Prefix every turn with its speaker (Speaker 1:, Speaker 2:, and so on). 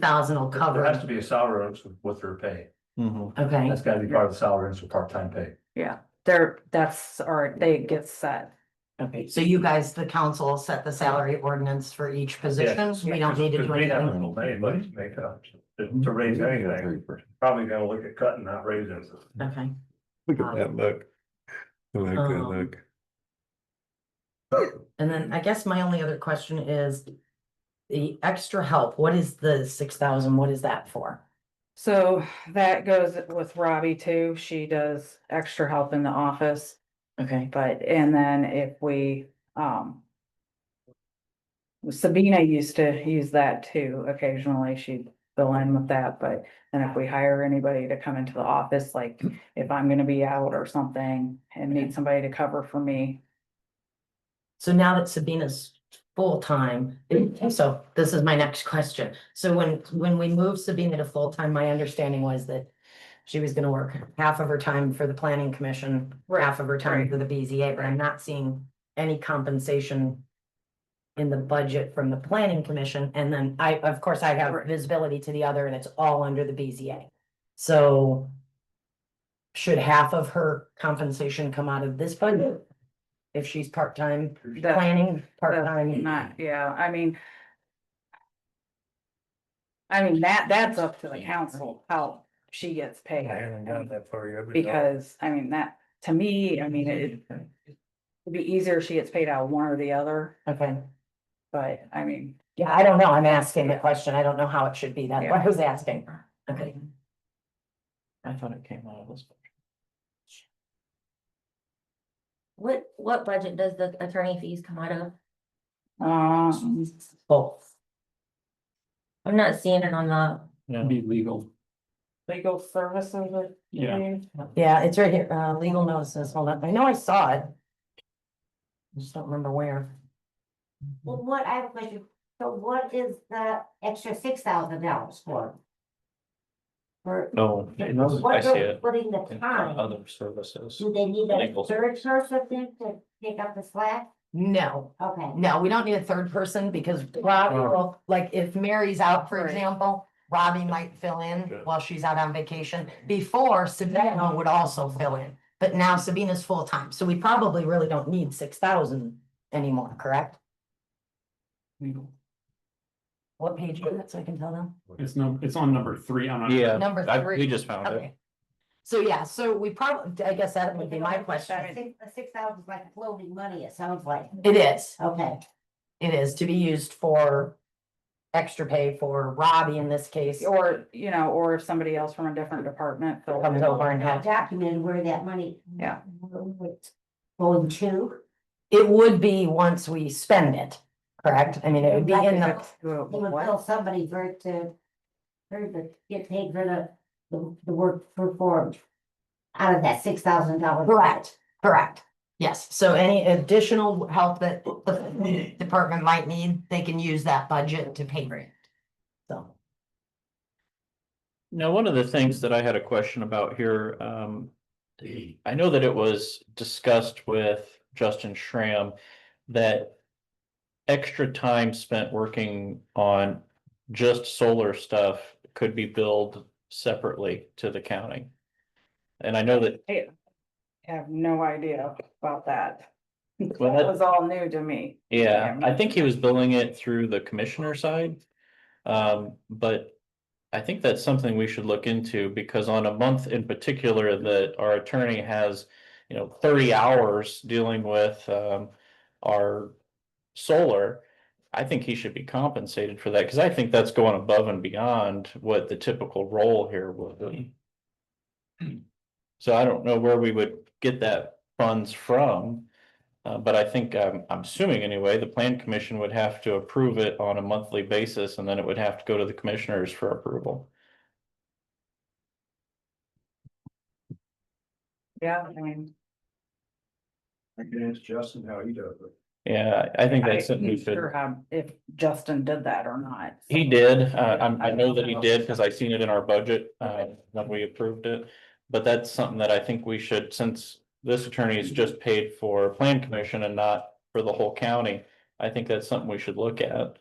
Speaker 1: thousand will
Speaker 2: There
Speaker 1: cover
Speaker 2: has
Speaker 1: it,
Speaker 2: to be a salary increase with their pay.
Speaker 3: Mhm.
Speaker 1: okay,
Speaker 2: That's gotta be part of the salary increase with part-time pay.
Speaker 4: Yeah, they're, that's, or they get set.
Speaker 1: okay, so you guys, the council will set the salary ordinance for each position, we don't need to
Speaker 2: Because
Speaker 1: do
Speaker 2: we
Speaker 1: anything.
Speaker 2: haven't told anybody to make a, to to raise anything, probably gonna look at cutting, not raising.
Speaker 1: Okay,
Speaker 3: Look
Speaker 1: Um,
Speaker 3: at that look. I like that
Speaker 1: um,
Speaker 3: look.
Speaker 1: and then I guess my only other question is the extra help, what is the six thousand, what is that for?
Speaker 4: So that goes with Robbie too. She does extra help in the office,
Speaker 1: Okay,
Speaker 4: but, and then if we, um. Sabina used to use that too. Occasionally she'd fill in with that, but then if we hire anybody to come into the office, like if I'm gonna be out or something and need somebody to cover for me.
Speaker 1: so now that Sabina's full-time, so this is my next question. So when, when we moved Sabina to full-time, my understanding was that she was gonna work half of her time for the planning commission, half of her time
Speaker 4: right.
Speaker 1: for the BZA, but I'm not seeing any compensation in the budget from the planning commission, and then I, of course, I have
Speaker 4: Right.
Speaker 1: visibility to the other, and it's all under the BZA. So should half of her compensation come out of this budget? If she's part-time
Speaker 4: That-
Speaker 1: planning, part-time,
Speaker 4: Not, yeah, I mean. I mean, that, that's up to the council, how she gets paid.
Speaker 3: that far yet.
Speaker 4: Because, I mean, that, to me, I mean, it-
Speaker 2: Mm-hmm.
Speaker 4: it'd be easier if she gets paid out of one or the other,
Speaker 1: okay.
Speaker 4: but I mean.
Speaker 1: Yeah, I don't know, I'm asking the question, I don't know how it should be, that's why I
Speaker 4: Yeah.
Speaker 1: was asking, okay.
Speaker 3: I thought it came out of this.
Speaker 5: What, what budget does the attorney fees come out of?
Speaker 4: Um,
Speaker 1: both.
Speaker 5: I'm not seeing it on the,
Speaker 3: Be legal.
Speaker 4: legal services. I
Speaker 3: Yeah.
Speaker 4: mean,
Speaker 1: Yeah, it's right here, uh, legal notices, hold on, I know I saw it. I Just don't remember where.
Speaker 6: Well, what, I have a question, so what is the extra six thousand dollars for? For,
Speaker 3: No, I
Speaker 6: what
Speaker 3: see
Speaker 6: they're
Speaker 3: it.
Speaker 6: putting the
Speaker 3: in
Speaker 6: time,
Speaker 3: Other services.
Speaker 6: do they need a
Speaker 3: Legal.
Speaker 6: third person then to pick up the slack?
Speaker 1: No,
Speaker 6: Okay,
Speaker 1: no, we don't need a third person because Robbie
Speaker 2: Wow.
Speaker 1: will, like, if Mary's out, for
Speaker 4: Right.
Speaker 1: example. Robbie might fill in
Speaker 3: Yeah.
Speaker 1: while she's out on vacation. Before Sabina would also fill in, but now Sabina's full-time, so we probably really don't need six thousand anymore, correct? What page is that so I can tell them?
Speaker 7: It's no, it's on number three. I'm not.
Speaker 3: Yeah.
Speaker 1: Number
Speaker 3: I-
Speaker 1: three.
Speaker 3: We just found it.
Speaker 1: Okay. So, yeah, so we probably, I guess that would be my question.
Speaker 6: The six thousand is like floating money, it sounds like,
Speaker 1: It is,
Speaker 6: okay,
Speaker 1: it is to be used for extra pay for Robbie in this case.
Speaker 4: Or, you know, or if somebody else from a different department. fills
Speaker 1: Comes
Speaker 4: in.
Speaker 1: over and helps.
Speaker 6: documented where that money.
Speaker 4: Yeah.
Speaker 6: Going to,
Speaker 1: It would be once we spend it, correct? I mean, it would be in the,
Speaker 6: they would bill somebody for it to, for it to get paid for the, the, the work performed. Out of that six thousand dollars.
Speaker 1: correct, correct. Yes, so any additional help that the department might need, they can use that budget to pay for it. So,
Speaker 8: Now, one of the things that I had a question about here, um, I know that it was discussed with Justin Schramm that extra time spent working on just solar stuff could be billed separately to the county. And I know that,
Speaker 4: I have no idea about that. That
Speaker 8: Well, that-
Speaker 4: was all new to me.
Speaker 8: yeah, I think he was billing it through the commissioner side. Um, but I think that's something we should look into because on a month in particular that our attorney has, you know, thirty hours dealing with um our solar. I think he should be compensated for that because I think that's going above and beyond what the typical role here would be. So I don't know where we would get that funds from. Uh, but I think, um, I'm assuming anyway, the plan commission would have to approve it on a monthly basis and then it would have to go to the commissioners for approval.
Speaker 4: Yeah, I mean.
Speaker 2: I can ask Justin how he does it.
Speaker 8: Yeah, I think
Speaker 4: I'm
Speaker 8: that's something we should,
Speaker 4: Sure how, if Justin did that or not.
Speaker 8: he did, uh, I, I know that he did because I seen it in our budget, uh, when we approved it. But that's something that I think we should, since this attorney is just paid for plan commission and not for the whole county, I think that's something we should look at.